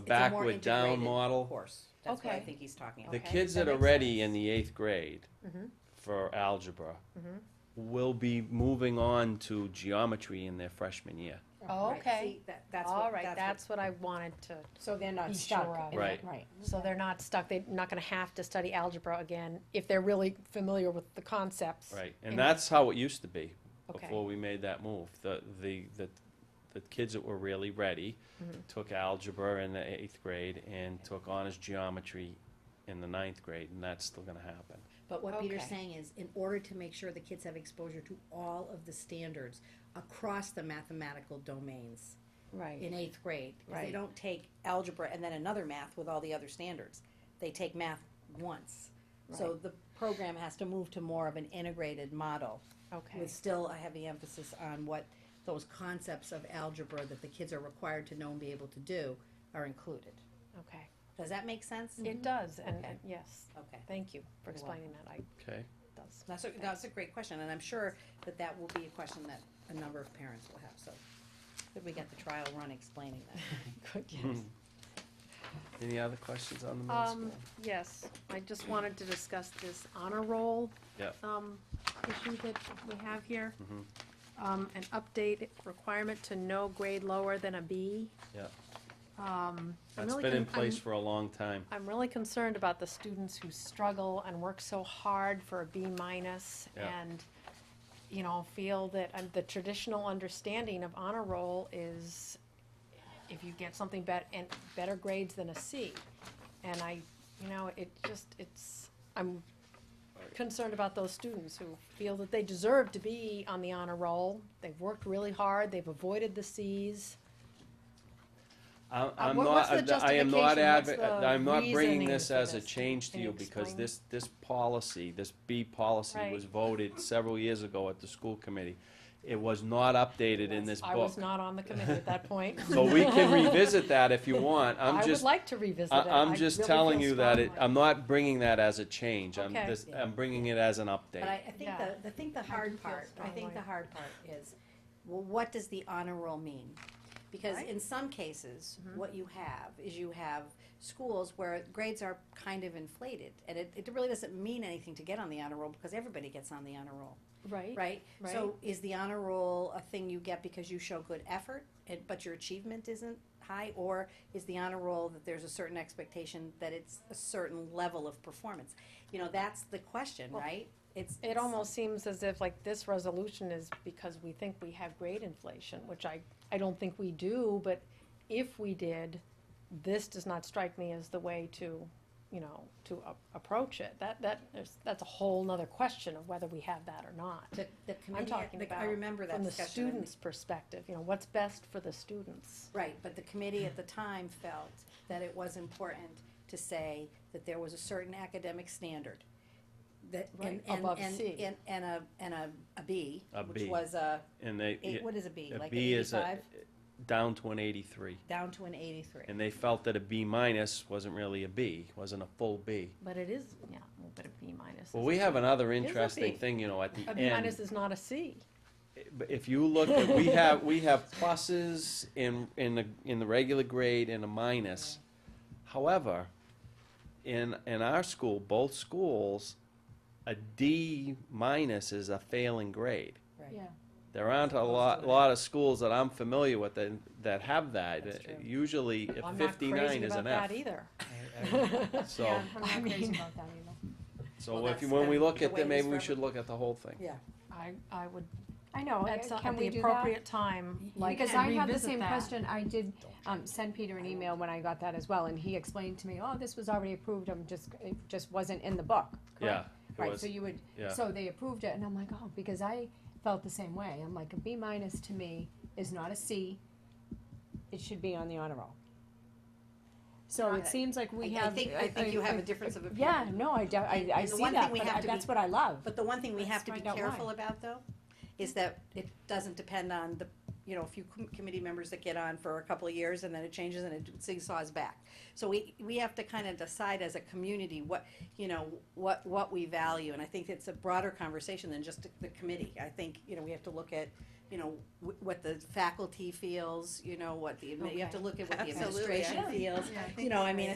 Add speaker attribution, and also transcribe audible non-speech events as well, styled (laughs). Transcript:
Speaker 1: backward down
Speaker 2: integrated
Speaker 1: model.
Speaker 2: Course, that's what I
Speaker 3: Okay.
Speaker 2: think he's talking
Speaker 1: The
Speaker 2: about.
Speaker 3: Okay,
Speaker 1: kids
Speaker 3: that
Speaker 1: that are
Speaker 3: makes
Speaker 1: ready
Speaker 3: sense.
Speaker 1: in the eighth grade
Speaker 3: Mhm.
Speaker 1: for algebra
Speaker 3: Mhm.
Speaker 1: will be moving on to geometry in their freshman year.
Speaker 3: Oh,
Speaker 2: Right,
Speaker 3: okay.
Speaker 2: see, that- That's
Speaker 3: All
Speaker 2: what,
Speaker 3: right,
Speaker 2: that's
Speaker 3: that's what I wanted to,
Speaker 2: what. So they're
Speaker 3: be
Speaker 2: not
Speaker 3: sure
Speaker 2: stuck.
Speaker 3: of.
Speaker 2: in it,
Speaker 1: Right.
Speaker 2: Right.
Speaker 3: so they're not stuck, they're not gonna have to study algebra again if they're really familiar with the concepts.
Speaker 1: Right, and
Speaker 3: And-
Speaker 1: that's how it used to be
Speaker 3: Okay.
Speaker 1: before we made that move. The, the, the, the kids that were really ready
Speaker 3: Mm-hmm.
Speaker 1: took algebra in the eighth grade and took honors geometry in the ninth grade, and that's still gonna happen.
Speaker 4: But what Peter's
Speaker 3: Okay.
Speaker 4: saying is, in order to make sure the kids have exposure to all of the standards across the mathematical domains
Speaker 3: Right.
Speaker 4: in eighth grade, 'cause
Speaker 3: Right.
Speaker 4: they
Speaker 2: They
Speaker 4: don't,
Speaker 2: don't take algebra and then another math with all the other standards. They take math once. So the program has to move to more of an integrated model
Speaker 3: Okay,
Speaker 4: with still a heavy emphasis on what those concepts of algebra that the kids are required to know and be able to do are included.
Speaker 3: okay.
Speaker 4: Does that make sense?
Speaker 3: It does,
Speaker 4: Mm-hmm.
Speaker 3: and,
Speaker 4: Okay.
Speaker 3: and yes,
Speaker 4: Okay.
Speaker 3: thank you for
Speaker 4: You're
Speaker 3: explaining that, I,
Speaker 1: Okay,
Speaker 3: does.
Speaker 4: That's a, that's a great question, and I'm sure that that will be a question that a number of parents will have, so. Could we get the trial run explaining that?
Speaker 3: (laughs) Good, yes.
Speaker 1: any other questions on the middle
Speaker 3: Um,
Speaker 1: school?
Speaker 3: yes, I just wanted to discuss this honor roll.
Speaker 1: Yep.
Speaker 3: Um, issue that we have here.
Speaker 1: Mhm.
Speaker 3: Um, an update requirement to no grade lower than a B.
Speaker 1: Yeah.
Speaker 3: Um, I'm
Speaker 1: That's
Speaker 3: really
Speaker 1: been in
Speaker 3: con- I'm-
Speaker 1: place for a long time.
Speaker 3: I'm really concerned about the students who struggle and work so hard for a B minus
Speaker 1: Yeah.
Speaker 3: and, you know, feel that um, the traditional understanding of honor roll is if you get something bet, and better grades than a C. And I, you know, it just, it's, I'm concerned about those students who feel that they deserve to be on the honor roll. They've worked really hard, they've avoided the Cs.
Speaker 1: I- I'm
Speaker 3: Uh, what-
Speaker 1: not,
Speaker 3: what's the
Speaker 1: I am not
Speaker 3: justification?
Speaker 1: adv-
Speaker 3: What's the
Speaker 1: I'm not bringing
Speaker 3: reasoning
Speaker 1: this
Speaker 3: for
Speaker 1: as a
Speaker 3: this?
Speaker 1: change to
Speaker 3: Can
Speaker 1: you
Speaker 3: you
Speaker 1: because
Speaker 3: explain?
Speaker 1: this, this policy, this B policy
Speaker 3: Right.
Speaker 1: was voted several years ago at the school committee. It was not updated in this
Speaker 3: I was
Speaker 1: book.
Speaker 3: not on the committee at
Speaker 1: (laughs)
Speaker 3: that point.
Speaker 1: So we
Speaker 3: (laughs)
Speaker 1: can revisit that if you want. I'm
Speaker 3: I would
Speaker 1: just,
Speaker 3: like to revisit it.
Speaker 1: I- I'm
Speaker 3: I
Speaker 1: just
Speaker 3: really
Speaker 1: telling
Speaker 3: feel
Speaker 1: you that it,
Speaker 3: strongly.
Speaker 1: I'm not bringing that as a change. I'm
Speaker 3: Okay.
Speaker 1: just, I'm bringing it as an
Speaker 4: But I,
Speaker 1: update.
Speaker 4: I think
Speaker 3: Yeah.
Speaker 4: the, I think the
Speaker 3: do
Speaker 4: hard
Speaker 3: feel
Speaker 4: part, I think the
Speaker 3: strongly.
Speaker 4: hard part is, well, what does the honor roll mean? Because
Speaker 3: Right. Mm-hmm.
Speaker 4: in some cases, what you have is you have schools where grades are kind of inflated, and it, it really doesn't mean anything to get on the honor roll, because everybody gets on the honor roll.
Speaker 3: Right.
Speaker 4: Right? So is the honor roll a thing you get because you show good effort, and, but your achievement isn't high? Or is the honor roll that there's a certain expectation that it's a certain level of performance? You know, that's the question,
Speaker 3: Well,
Speaker 4: right? It's.
Speaker 3: It almost seems as if like this resolution is because we think we have grade inflation, which I, I don't think we do, but if we did, this does not strike me as the way to, you know, to a- approach it. That, that, is- that's a whole nother question of whether we have that or not.
Speaker 4: The, the committee,
Speaker 3: talking
Speaker 4: the- I
Speaker 3: about
Speaker 4: remember that
Speaker 3: From the
Speaker 4: discussion. and-
Speaker 3: student's perspective, you know, what's best for the students.
Speaker 4: Right, but the committee
Speaker 3: (sighs)
Speaker 4: at the time felt that it was important to say that there was a certain academic standard. That, and,
Speaker 3: Right,
Speaker 4: and,
Speaker 3: above
Speaker 4: and,
Speaker 3: C.
Speaker 4: and, and a, and a, a B,
Speaker 1: A
Speaker 4: which
Speaker 1: B.
Speaker 4: was a,
Speaker 1: And they,
Speaker 4: eight, what is a B?
Speaker 1: a
Speaker 4: Like an
Speaker 1: B is a,
Speaker 4: eighty-five?
Speaker 1: down to an eighty-three.
Speaker 4: down to an 83.
Speaker 1: And they felt that a B minus wasn't really a B, wasn't a full B.
Speaker 3: But it is, yeah, but a B minus is.
Speaker 1: Well, we have another
Speaker 3: a
Speaker 1: interesting
Speaker 3: B.
Speaker 1: thing, you know, at the
Speaker 3: A
Speaker 1: end.
Speaker 3: B minus is not a C.
Speaker 1: But if you look, at we have, we have pluses in, in the, in the regular grade and a minus. However, in, in our school, both schools, a D minus is a failing grade.
Speaker 4: Right.
Speaker 3: Yeah.
Speaker 1: There aren't a lot, lot of schools that I'm familiar with that, that have that.
Speaker 4: That's true.
Speaker 1: Usually, if
Speaker 3: I'm not
Speaker 1: fifty-nine
Speaker 3: crazy
Speaker 1: is
Speaker 3: about
Speaker 1: an
Speaker 3: that
Speaker 1: F.
Speaker 3: either.
Speaker 1: So,
Speaker 3: I mean,
Speaker 1: so
Speaker 4: Well,
Speaker 1: if, you-
Speaker 4: that's
Speaker 1: when we
Speaker 4: been
Speaker 1: look
Speaker 4: the
Speaker 1: at
Speaker 4: way it
Speaker 1: them,
Speaker 4: is
Speaker 1: maybe
Speaker 4: for
Speaker 1: we
Speaker 4: every-
Speaker 1: should look at the whole thing.
Speaker 3: I, I would,
Speaker 5: I know,
Speaker 3: at some,
Speaker 5: Oh, can
Speaker 3: at the
Speaker 5: we do that?
Speaker 3: appropriate time, like,
Speaker 5: Because I had the
Speaker 3: revisit
Speaker 5: same
Speaker 3: that.
Speaker 5: question, I did, um, send Peter an email when I got that as well, and he explained to me, oh, this was already approved, I'm just, it just wasn't in the book,
Speaker 1: Yeah,
Speaker 5: correct?
Speaker 1: it
Speaker 5: Right,
Speaker 1: was,
Speaker 5: so you would,
Speaker 1: yeah.
Speaker 5: so they approved it, and I'm like, oh, because I felt the same way, I'm like, a B minus to me is not a C, it should be on the honor roll. So
Speaker 4: Got
Speaker 5: it
Speaker 4: it.
Speaker 5: seems like we
Speaker 4: I
Speaker 5: have.
Speaker 4: think, I think you have a difference of opinion.
Speaker 5: Yeah, no, I, de- I,
Speaker 4: And-
Speaker 5: I
Speaker 4: and the
Speaker 5: see
Speaker 4: one
Speaker 5: that,
Speaker 4: thing we
Speaker 5: but
Speaker 4: have
Speaker 5: I-
Speaker 4: to
Speaker 5: that's
Speaker 4: be-
Speaker 5: what I love,
Speaker 4: But the one thing we
Speaker 5: Let's
Speaker 4: have to be
Speaker 5: find out why.
Speaker 4: careful about though, is that it doesn't depend on the, you know, a few com- committee members that get on for a couple of years and then it changes and it zigzags back. So we, we have to kind of decide as a community what, you know, what, what we value. And I think it's a broader conversation than just the committee. I think, you know, we have to look at, you know, wh- what the faculty feels, you know, what the, admi- you have to
Speaker 3: Okay.
Speaker 4: look at what the
Speaker 6: Absolutely, I
Speaker 4: administration
Speaker 6: think-
Speaker 4: feels.
Speaker 6: Yeah, I think
Speaker 4: You know, I
Speaker 6: you're
Speaker 4: mean,
Speaker 6: right.